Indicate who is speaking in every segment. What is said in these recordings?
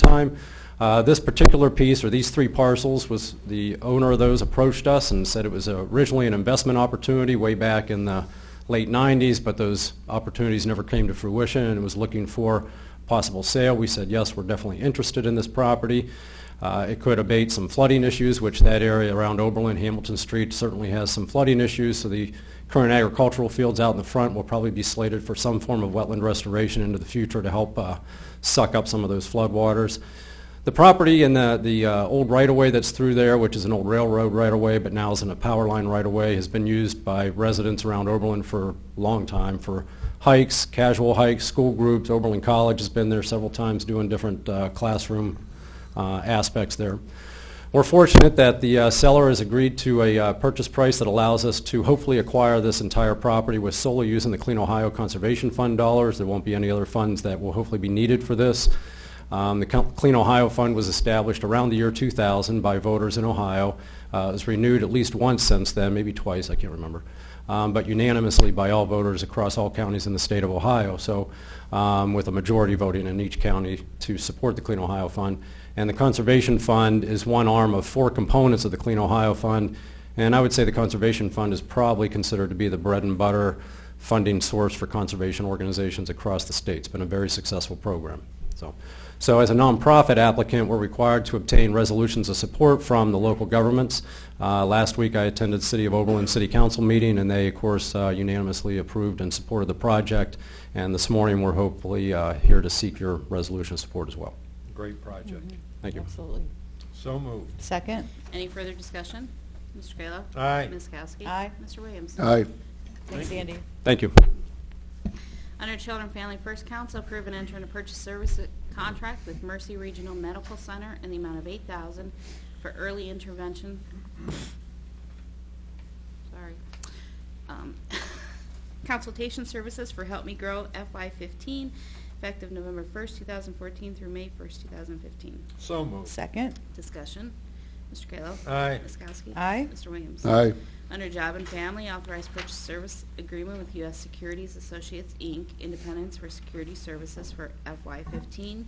Speaker 1: time. Uh, This particular piece, or these three parcels, was, the owner of those approached us and said it was originally an investment opportunity way back in the late 90s, but those opportunities never came to fruition, and was looking for possible sale. We said, yes, we're definitely interested in this property. Uh, It could abate some flooding issues, which that area around Oberlin, Hamilton Street certainly has some flooding issues, so the current agricultural fields out in the front will probably be slated for some form of wetland restoration into the future to help uh, suck up some of those floodwaters. The property and the, the uh, old right-of-way that's through there, which is an old railroad right-of-way, but now is in a power line right-of-way, has been used by residents around Oberlin for a long time, for hikes, casual hikes, school groups. Oberlin College has been there several times doing different uh, classroom uh, aspects there. We're fortunate that the uh, seller has agreed to a uh, purchase price that allows us to hopefully acquire this entire property with solely using the Clean Ohio Conservation Fund dollars. There won't be any other funds that will hopefully be needed for this. Um, The Co- Clean Ohio Fund was established around the year 2000 by voters in Ohio. Uh, It was renewed at least once since then, maybe twice, I can't remember, um, but unanimously by all voters across all counties in the state of Ohio. So um, with a majority voting in each county to support the Clean Ohio Fund. And the Conservation Fund is one arm of four components of the Clean Ohio Fund. And I would say the Conservation Fund is probably considered to be the bread and butter funding source for conservation organizations across the state. It's been a very successful program. So, so as a nonprofit applicant, we're required to obtain resolutions of support from the local governments. Uh, Last week, I attended City of Oberlin City Council meeting, and they, of course, uh, unanimously approved and supported the project. And this morning, we're hopefully uh, here to seek your resolution of support as well.
Speaker 2: Great project.
Speaker 3: Mm-hmm.
Speaker 1: Thank you.
Speaker 3: Absolutely.
Speaker 2: So moved.
Speaker 3: Second?
Speaker 4: Any further discussion? Mr. Kayla?
Speaker 2: Aye.
Speaker 4: Ms. Kowski?
Speaker 3: Aye.
Speaker 4: Mr. Williams?
Speaker 5: Aye.
Speaker 3: Thanks, Andy.
Speaker 1: Thank you.
Speaker 4: Under Children and Family First Council, approve and enter in a purchase service contract with Mercy Regional Medical Center in the amount of 8000 for early intervention. Sorry. Um, Consultation services for Help Me Grow FY15, effective November 1st, 2014 through May 1st, 2015.
Speaker 2: So moved.
Speaker 3: Second?
Speaker 4: Discussion. Mr. Kayla?
Speaker 2: Aye.
Speaker 4: Ms. Kowski?
Speaker 3: Aye.
Speaker 4: Mr. Williams?
Speaker 5: Aye.
Speaker 4: Under Job and Family, authorized purchase service agreement with U.S. Securities Associates, Inc., Independence for Security Services for FY15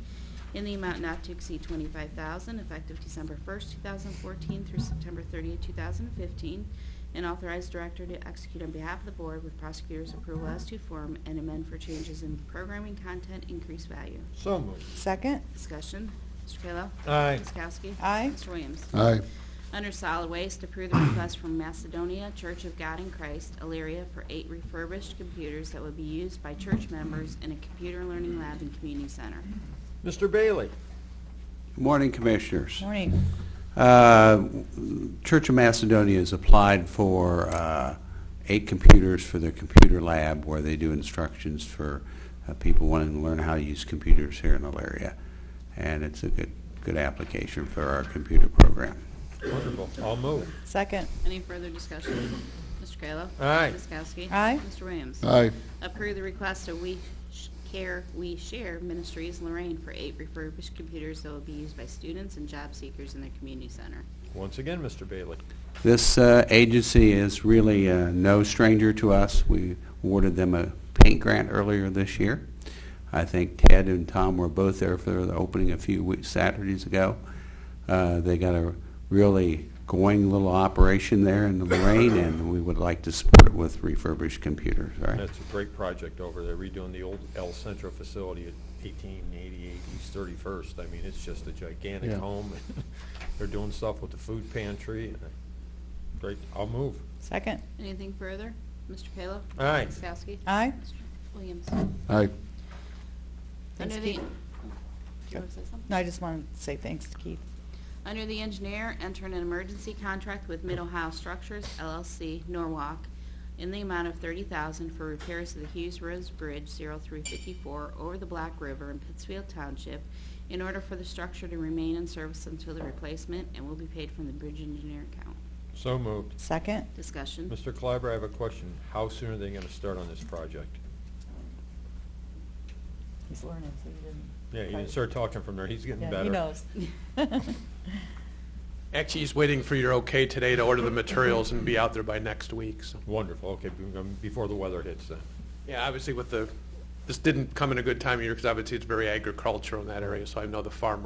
Speaker 4: in the amount not to exceed $25,000, effective December 1st, 2014 through September 30th, 2015, and authorized director to execute on behalf of the board with prosecutor's approval as to form and amend for changes in programming content, increased value.
Speaker 2: So moved.
Speaker 3: Second?
Speaker 4: Discussion. Mr. Kayla?
Speaker 2: Aye.
Speaker 4: Ms. Kowski?
Speaker 3: Aye.
Speaker 4: Mr. Williams?
Speaker 5: Aye.
Speaker 4: Under solid waste, approve the request from Macedonia Church of God in Christ, Elyria, for eight refurbished computers that would be used by church members in a computer learning lab and community center.
Speaker 2: Mr. Bailey?
Speaker 6: Good Morning, Commissioners.
Speaker 3: Morning.
Speaker 6: Uh, Church of Macedonia has applied for uh, eight computers for their computer lab where they do instructions for uh, people wanting to learn how to use computers here in Elyria. And it's a good, good application for our computer program.
Speaker 2: Wonderful. I'll move.
Speaker 3: Second?
Speaker 4: Any further discussion? Mr. Kayla?
Speaker 2: Aye.
Speaker 4: Ms. Kowski?
Speaker 3: Aye.
Speaker 4: Mr. Williams?
Speaker 5: Aye.
Speaker 4: Approve the request of We Sh- Care, We Share Ministries Lorraine for eight refurbished computers that will be used by students and job seekers in their community center.
Speaker 2: Once again, Mr. Bailey.
Speaker 6: This uh, agency is really uh, no stranger to us. We awarded them a paint grant earlier this year. I think Ted and Tom were both there for the opening a few weeks, Saturdays ago. Uh, They got a really going little operation there in Lorraine, and we would like to support it with refurbished computers, all right?
Speaker 2: That's a great project over there, redoing the old El Centro facility at 1888 East 31st. I mean, it's just a gigantic
Speaker 5: Yeah.
Speaker 2: home. They're doing stuff with the food pantry. Great. I'll move.
Speaker 3: Second?
Speaker 4: Anything further? Mr. Kayla?
Speaker 2: Aye.
Speaker 4: Ms. Kowski?
Speaker 3: Aye.
Speaker 4: Mr. Williams?
Speaker 5: Aye.
Speaker 4: Under the...
Speaker 3: Keith.
Speaker 4: Do you want to say something?
Speaker 3: No, I just wanted to say thanks to Keith.
Speaker 4: Under the engineer, enter an emergency contract with Mid-Ohio Structures LLC, Norwalk, in the amount of $30,000 for repairs to the Hughes Roads Bridge 0354 over the Black River in Pittsfield Township in order for the structure to remain in service until the replacement and will be paid from the bridge engineer account.
Speaker 2: So moved.
Speaker 3: Second?
Speaker 4: Discussion.
Speaker 2: Mr. Clyber, I have a question. How soon are they going to start on this project?
Speaker 3: He's learning, so he didn't.
Speaker 2: Yeah, you didn't start talking from there. He's getting
Speaker 3: Yeah,
Speaker 2: better.
Speaker 3: he knows.
Speaker 7: Actually, he's waiting for your okay today to order the materials and be out there by next week, so.
Speaker 2: Wonderful. Okay, be- um, before the weather hits then.
Speaker 7: Yeah, obviously with the, this didn't come in a good time of year, because obviously it's very agricultural in that area, so I know the farmer